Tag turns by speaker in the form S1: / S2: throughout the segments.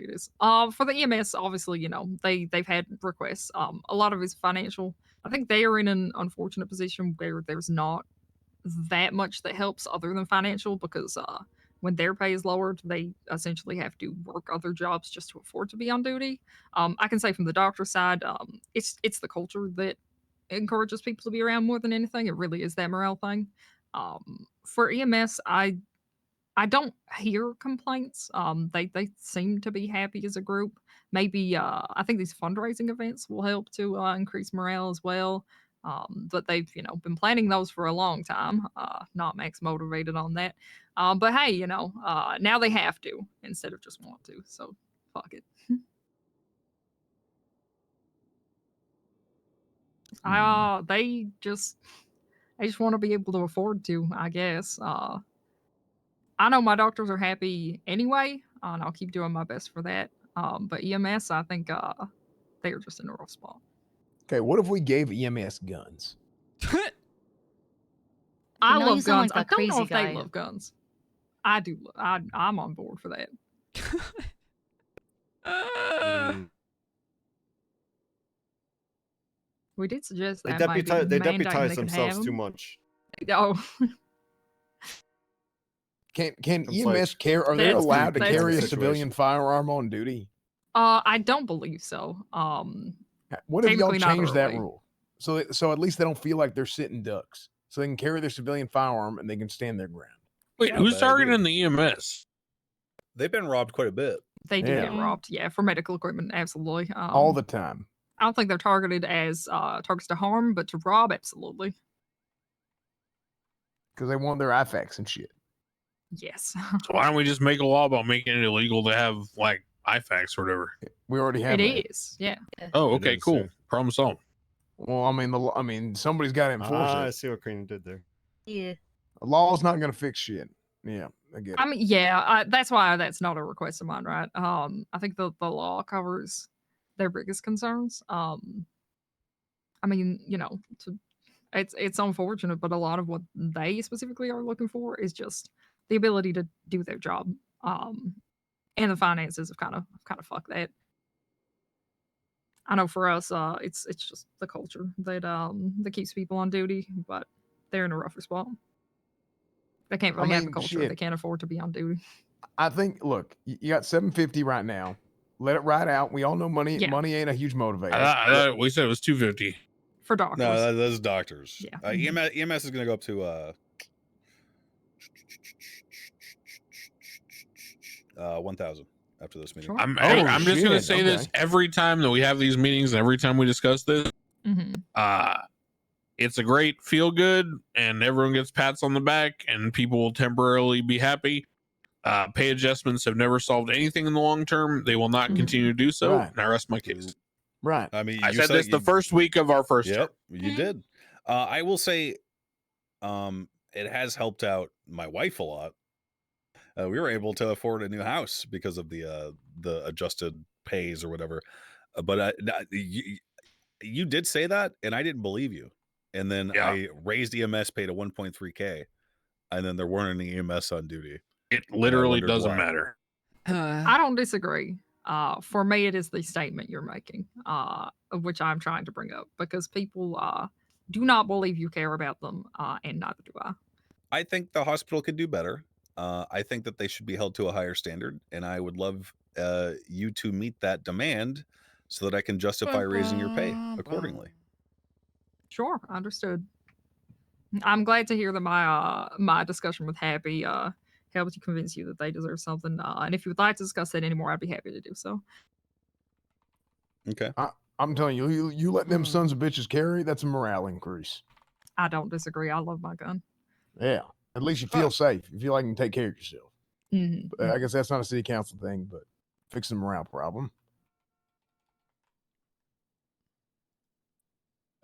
S1: years. Um, for the EMS, obviously, you know they they've had requests. Um, a lot of his financial. I think they are in an unfortunate position where there's not that much that helps other than financial because uh, when their pay is lowered, they essentially have to work other jobs just to afford to be on duty. Um, I can say from the doctor's side, um, it's it's the culture that encourages people to be around more than anything. It really is that morale thing. Um, for EMS, I I don't hear complaints. Um, they they seem to be happy as a group. Maybe uh, I think these fundraising events will help to uh, increase morale as well. Um, but they've you know been planning those for a long time. Uh, not Max motivated on that. Um, but hey, you know uh, now they have to instead of just want to. So fuck it.
S2: Hmm.
S1: Uh, they just they just want to be able to afford to. I guess. Uh, I know my doctors are happy anyway, uh, and I'll keep doing my best for that. Um, but EMS, I think uh, they are just in a rough spot.
S3: Okay, what if we gave EMS guns?
S4: Mm.
S1: I
S5: know you
S1: love
S5: sound
S1: guns. I
S5: like that
S1: don't know
S5: crazy
S1: if
S5: guy.
S1: they love guns. I do. lo- I, I'm on board for that.
S2: Uh,
S6: Mm,
S1: We did suggest
S4: They
S1: that might be
S4: deputize, they
S1: mandating
S4: deputize
S1: they can
S4: themselves
S1: have
S4: too
S1: 'em.
S4: much.
S1: Oh,
S3: Can can
S4: It's
S3: EMS
S4: like-
S3: care? Are they
S1: That's-
S3: allowed to
S1: that's-
S3: carry a
S4: Situation.
S3: civilian firearm on duty?
S1: uh, I don't believe so. Um,
S3: Ha- What if y'all
S1: Technically not
S3: change that
S1: early.
S3: rule? So that- so at least they don't feel like they're sitting ducks. So they can carry their civilian firearm and they can stand their ground.
S7: Wait,
S4: Yeah,
S7: who's
S4: bad
S7: targeting the E EMS?
S4: They've been robbed quite a bit.
S6: Ah,
S1: they do get
S5: Yeah.
S1: robbed. Yeah, for medical equipment, absolutely. Um,
S3: All the time.
S1: I don't think they're targeted as uh, targets to harm, but to rob, absolutely.
S3: Because they want their IFACs and shit.
S1: Yes,
S7: So why don't we just make a law about making it illegal to have like IFAX or whatever?
S3: We already have
S1: it
S3: that.
S1: is. Yeah.
S7: Oh,
S4: It
S7: okay,
S4: is,
S7: cool.
S4: yeah.
S7: Problem solved.
S3: Well, I mean the law- I mean somebody's got to enforce
S4: Ah, I
S3: it.
S4: see what Karina did there.
S5: Yeah.
S3: The law's not going to fix shit. Yeah, I get
S1: I
S3: it.
S1: mean, yeah, I, that's why that's not a request of mine, right? Um, I think the, the law covers their biggest concerns. Um, I mean, you know, to, it's it's unfortunate, but a lot of what they specifically are looking for is just the ability to do their job. Um, and the finances have kind of kind of fucked that. I know for us, uh, it's it's just the culture that um that keeps people on duty, but they're in a rougher spot. They can't
S3: I
S1: really have a
S3: mean,
S1: culture if
S3: shit.
S1: they can't afford to be on duty.
S3: I think. Look, y- you got seven fifty right now. Let it ride out. We all know money.
S1: Yeah.
S3: Money ain't a huge motivator.
S7: I thought, I thought we said it was two fifty.
S1: for doctors.
S4: No, that, those doctors.
S1: Yeah. Mm-hmm.
S4: Uh, EMS, EMS is going to go up to uh, uh, 1,000 after this meeting.
S1: Sure.
S7: I'm
S3: Oh,
S7: I'm just gonna
S3: shit,
S7: say this
S3: okay.
S7: every time that we have these meetings and every time we discuss this.
S1: Mhm.
S7: Uh it's a great feel good and everyone gets pats on the back and people will temporarily be happy. Uh, pay adjustments have never solved anything in the long term. They will not
S1: Mhm.
S7: continue to do so.
S3: Right.
S7: And I rest my case.
S3: right.
S4: I mean,
S7: I
S4: you
S7: said this the
S4: you-
S7: first week of our first Mm-hmm. term.
S4: Yep, you did. Uh, I will say, um, it has helped out my wife a lot. Uh, we were able to afford a new house because of the uh, the adjusted pays or whatever. Uh, but uh, n- you, you did say that, and I didn't believe you. And then
S7: Yeah.
S4: I raised E EMS pay to 1.3k, and then there weren't any EMS on duty.
S7: It literally
S4: wondered
S7: doesn't
S4: why.
S7: matter.
S2: uh,
S1: I don't disagree. Uh, for me, it is the statement you're making, uh, of which I'm trying to bring up because people uh, do not believe you care about them, uh, and neither do I.
S4: I think the hospital could do better. Uh, I think that they should be held to a higher standard, and I would love uh, you to meet that demand so that I can justify raising your pay accordingly.
S1: Sure, understood. I'm glad to hear that my uh, my discussion with Happy uh, helped to convince you that they deserve something. Uh, and if you would like to discuss that anymore, I'd be happy to do so.
S4: Okay.
S3: I'm telling you, you, you let them
S2: Mm.
S3: sons of bitches carry. That's a morale increase.
S1: I don't disagree. I love my gun.
S3: Yeah. At least you feel safe. You feel like you can take care of yourself.
S1: Mhm.
S3: Uh, I guess that's not a city council thing, but fix the morale problem.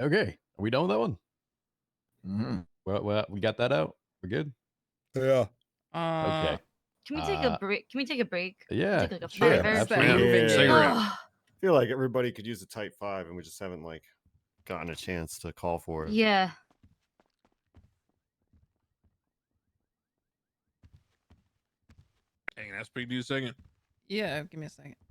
S8: Okay. Are we done with that one?
S3: Mm-hmm.
S8: Well, well we got that out. We're good.
S4: Yeah.
S8: Okay.
S2: uh,
S5: Can we take
S8: Uh,
S5: a break? Can we take a break? Oh,
S8: Yeah.
S5: Take like a
S8: sure,
S5: fiver.
S8: absolutely.
S7: Yeah. Cigarette.
S6: I feel like everybody could use a type five, and we just haven't like gotten a chance to call for it.
S5: yeah.
S7: Hang on, speak to you a second.
S2: yeah. Give me a second.